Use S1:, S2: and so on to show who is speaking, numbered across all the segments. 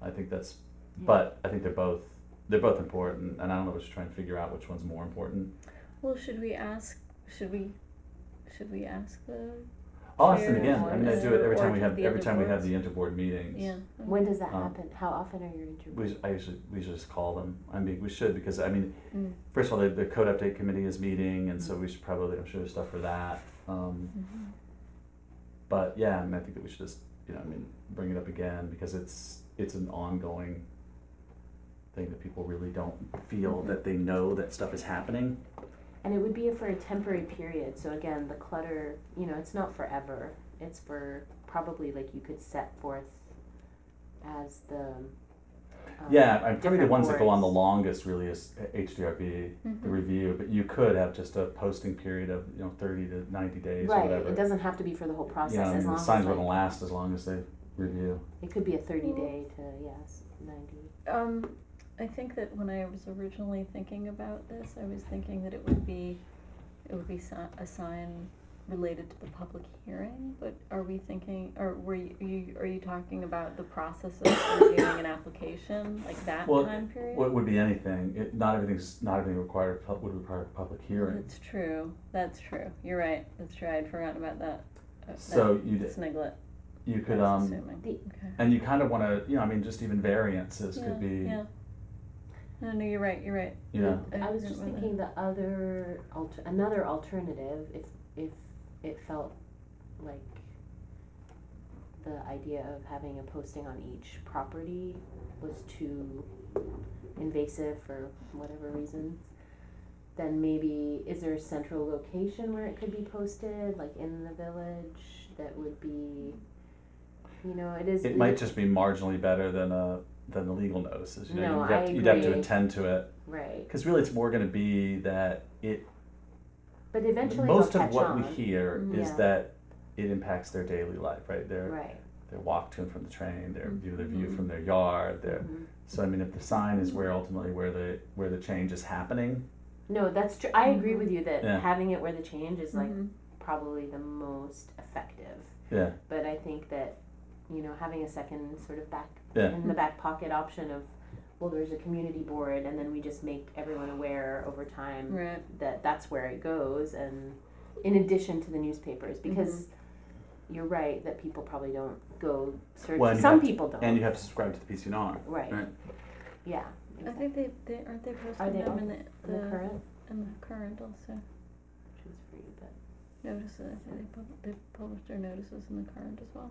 S1: I think that's,
S2: Yeah.
S1: but I think they're both they're both important, and I don't know. We're just trying to figure out which one's more important.
S3: Well, should we ask? Should we? Should we ask the?
S1: I'll ask them
S3: Chair
S1: again. I mean, I do it every time we
S3: or
S1: have
S3: the
S1: every
S3: other
S1: time we have
S3: boards?
S1: the interboard meetings.
S3: Yeah.
S2: When does that
S1: Um,
S2: happen? How often are your
S1: We,
S2: interviews?
S1: I usually, we should just call them. I mean, we should because I mean,
S3: Mm.
S1: first of all, the, the code update committee is meeting, and so we should probably I'm sure there's stuff for that. Um,
S3: Mhm.
S1: but yeah, I mean, I think that we should just you know I mean bring it up again because it's it's an ongoing thing that people really don't feel
S3: Mm-hmm.
S1: that they know that stuff is happening.
S2: And it would be for a temporary period. So again, the clutter, you know, it's not forever. It's for probably like you could set forth as the. um,
S1: Yeah, I- probably the
S2: different
S1: ones that go on the
S2: boards. Mm-hmm.
S1: longest really is HDRB, the
S3: Mhm.
S1: review, but you could have just a posting period of, you know, thirty to ninety days or
S2: Right,
S1: whatever.
S2: it doesn't have to be for the whole process
S1: Yeah, I
S2: as
S1: mean,
S2: long
S1: the
S2: as
S1: signs
S2: like-
S1: wouldn't last as long as they review.
S2: it could be a thirty day to yes ninety.
S3: Um, I think that when I was originally thinking about this, I was thinking that it would be, it would be si- a sign related to the public hearing. But are we thinking, or were you, you are you talking about the process of reviewing an application, like that
S1: Well,
S3: time period?
S1: Well, it would be anything, it, not everything's, not everything required, pub- would require a public hearing.
S3: That's true. That's true. You're right. That's true. I'd forgotten about that. uh,
S1: So
S3: that
S1: you'd-
S3: sniglet.
S2: Mm-hmm.
S1: You
S3: I
S1: could,
S3: was
S1: um,
S3: assuming.
S2: The-
S3: Okay.
S1: and you kind of want to, you know, I mean, just even variances
S3: yeah,
S1: could be,
S3: Yeah. No, no, you're right. You're right.
S1: you know,
S2: I was just
S3: forgot about that.
S2: thinking the other alter, another alternative if if it felt like the idea of having a posting on each property was too invasive for whatever reasons. Then maybe is there a central location where it could be posted, like in the village, that would be, you know, it is.
S1: it might just be marginally better than a, than the legal notices, you know,
S2: No,
S1: you'd have
S2: I
S1: to- you'd have to
S2: agree.
S1: attend to it.
S2: right,
S1: Because really, it's more going to be that it
S2: but eventually
S1: most
S2: they'll
S1: of
S2: catch
S1: what
S2: on.
S1: we hear is
S2: Yeah.
S1: that it impacts their daily life, right? Their
S2: right.
S1: their walk to and from the train, their view their view
S2: Mhm.
S1: from their yard, their
S2: mhm.
S1: so I mean if the sign is where ultimately where the where the change is happening.
S2: No, that's true. I agree
S3: Mhm.
S2: with you that
S1: Mm-hmm. Yeah.
S2: having it where the change is like
S3: Mhm.
S2: probably the most effective.
S1: Yeah.
S2: But I think that you know having a second sort of back
S1: Yeah.
S2: in the back pocket option of well, there's a community board, and then we just make everyone aware over time
S3: Right.
S2: that that's where it goes, and in addition to the newspapers,
S3: Mm-hmm.
S2: because. You're right that people probably don't go search.
S1: Well, and you
S2: Some
S1: have to-
S2: people don't.
S1: And you have to subscribe to the PCNR.
S2: right.
S1: right.
S2: Yeah.
S3: I think they, they aren't they posting
S2: they
S3: them
S2: on
S3: in the,
S2: the current,
S3: in the current also
S2: which is free, but
S3: notices. I think they pub- they published their notices in the current as well.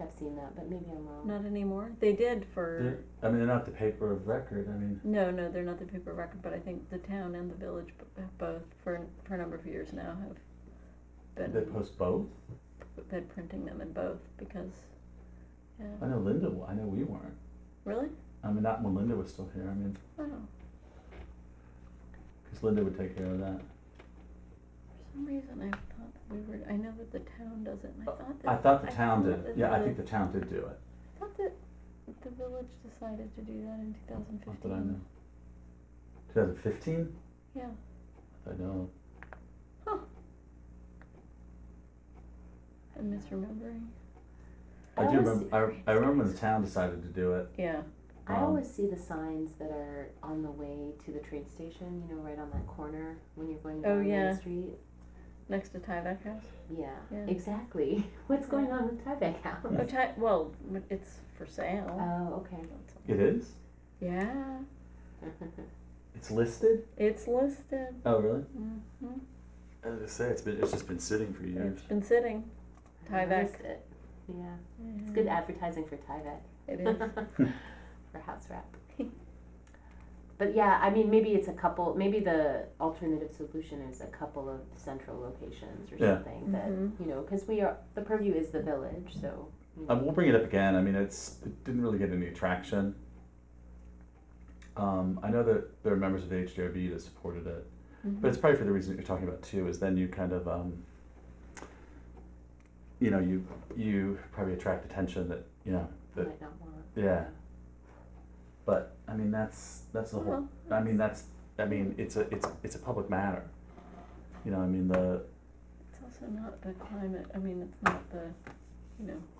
S2: I've seen that, but maybe I'm wrong.
S3: Not anymore. They did for
S1: They're- I mean they're not the paper of record. I mean
S3: no, no, they're not the paper record, but I think the town and the village b- have both for for a number of years now have
S1: they
S3: been
S1: post both.
S3: been printing them in both because
S1: I
S3: yeah
S1: know Linda. wa- I know we weren't.
S3: really
S1: I mean not when Linda was still here. I mean
S3: oh
S1: because Linda would take care of that.
S3: for some reason I thought that we were I know that the town does it and I
S1: Uh,
S3: thought that
S1: I thought the
S3: I
S1: town
S3: thought
S1: did.
S3: that
S1: Yeah, I
S3: the-
S1: think the town did do it.
S3: I thought that the village decided to do that in 2015.
S1: Not that I know. 2015.
S3: Yeah.
S1: I know.
S3: I'm misremembering.
S1: I
S2: I
S1: do
S2: always-
S1: remember. I, I remember when the town decided to do it.
S3: Yeah.
S2: I
S1: Um,
S2: always see the signs that are on the way to the train station, you know, right on that corner when you're going
S3: Oh,
S2: down
S3: yeah.
S2: Main Street.
S3: Next to Tyvek House.
S2: Yeah,
S3: Yeah.
S2: exactly. What's going on with Tyvek House?
S3: Oh, Ty- well, m- it's for sale.
S2: Oh, okay.
S1: It is.
S3: Yeah.
S1: It's listed.
S3: It's listed.
S1: Oh really?
S3: hmm
S1: I was gonna say it's been it's just been sitting for years.
S3: It's been sitting.
S2: I
S3: Tyvek. Mm.
S2: noticed it. Yeah, it's good advertising for Tyvek.
S3: Mm-hmm. It is.
S2: for house wrap. but yeah, I mean, maybe it's a couple. Maybe the alternative solution is a couple of central locations or
S1: Yeah.
S2: something that
S3: Mhm.
S2: you know, because we are the purview is the village, so. you know.
S1: Um, we'll bring it up again. I mean, it's it didn't really get any traction. Um, I know that there are members of the HDRB that supported it, but it's probably for the reason that you're talking about too. Is then you kind of um, you know you you probably attract attention that you know that
S2: might not want.
S1: yeah. But I mean that's that's the whole.
S3: Well,
S1: I mean that's I mean it's a it's it's a public matter. You know I mean the
S3: it's also not the climate. I mean, it's not the, you know,